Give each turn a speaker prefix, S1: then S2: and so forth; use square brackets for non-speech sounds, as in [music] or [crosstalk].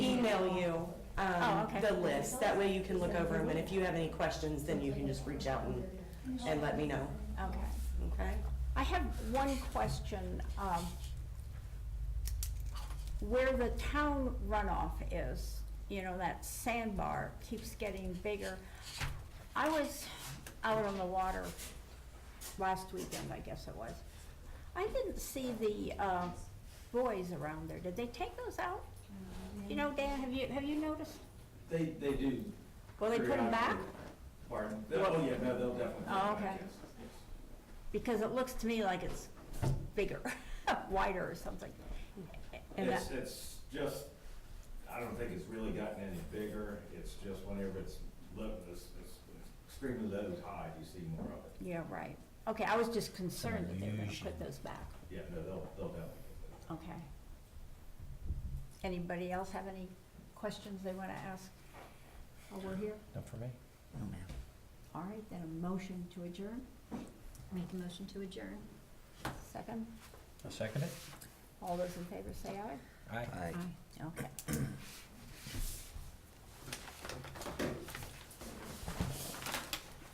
S1: email you,
S2: Oh,
S1: um,
S2: okay.
S1: the list, that way you can look over them, and if you have any questions, then you can just reach out and, and let me know,
S2: Okay.
S1: okay?
S2: I have one question. um, Where the town runoff is, you know, that sandbar keeps getting bigger. I was out on the water last weekend, I guess it was. I didn't see the uh, buoys around there. Did they take those out? You know, Dan, have you, have you noticed?
S3: They, they do.
S2: Will they put them back?
S3: periodically. Pardon? They'll- Oh, yeah, no, they'll definitely. put 'em
S2: Oh,
S3: back,
S2: okay.
S3: yes, yes.
S2: Because it looks to me like it's bigger, [laughs] wider or something. And that-
S3: It's, it's just, I don't think it's really gotten any bigger, it's just whenever it's low, it's, it's extremely low tide, you see more of it.
S2: Yeah, right. Okay, I was just concerned that they were gonna put those back.
S3: Yeah, no, they'll, they'll definitely. put them back.
S2: Okay. Anybody else have any questions they wanna ask while we're here?
S4: Not for me.
S2: No, ma'am. All right, then a motion to adjourn,
S5: Make a motion to adjourn.
S2: second.
S4: I'll second it.
S2: All those in favor say aye.
S4: Aye.
S2: Aye. Okay.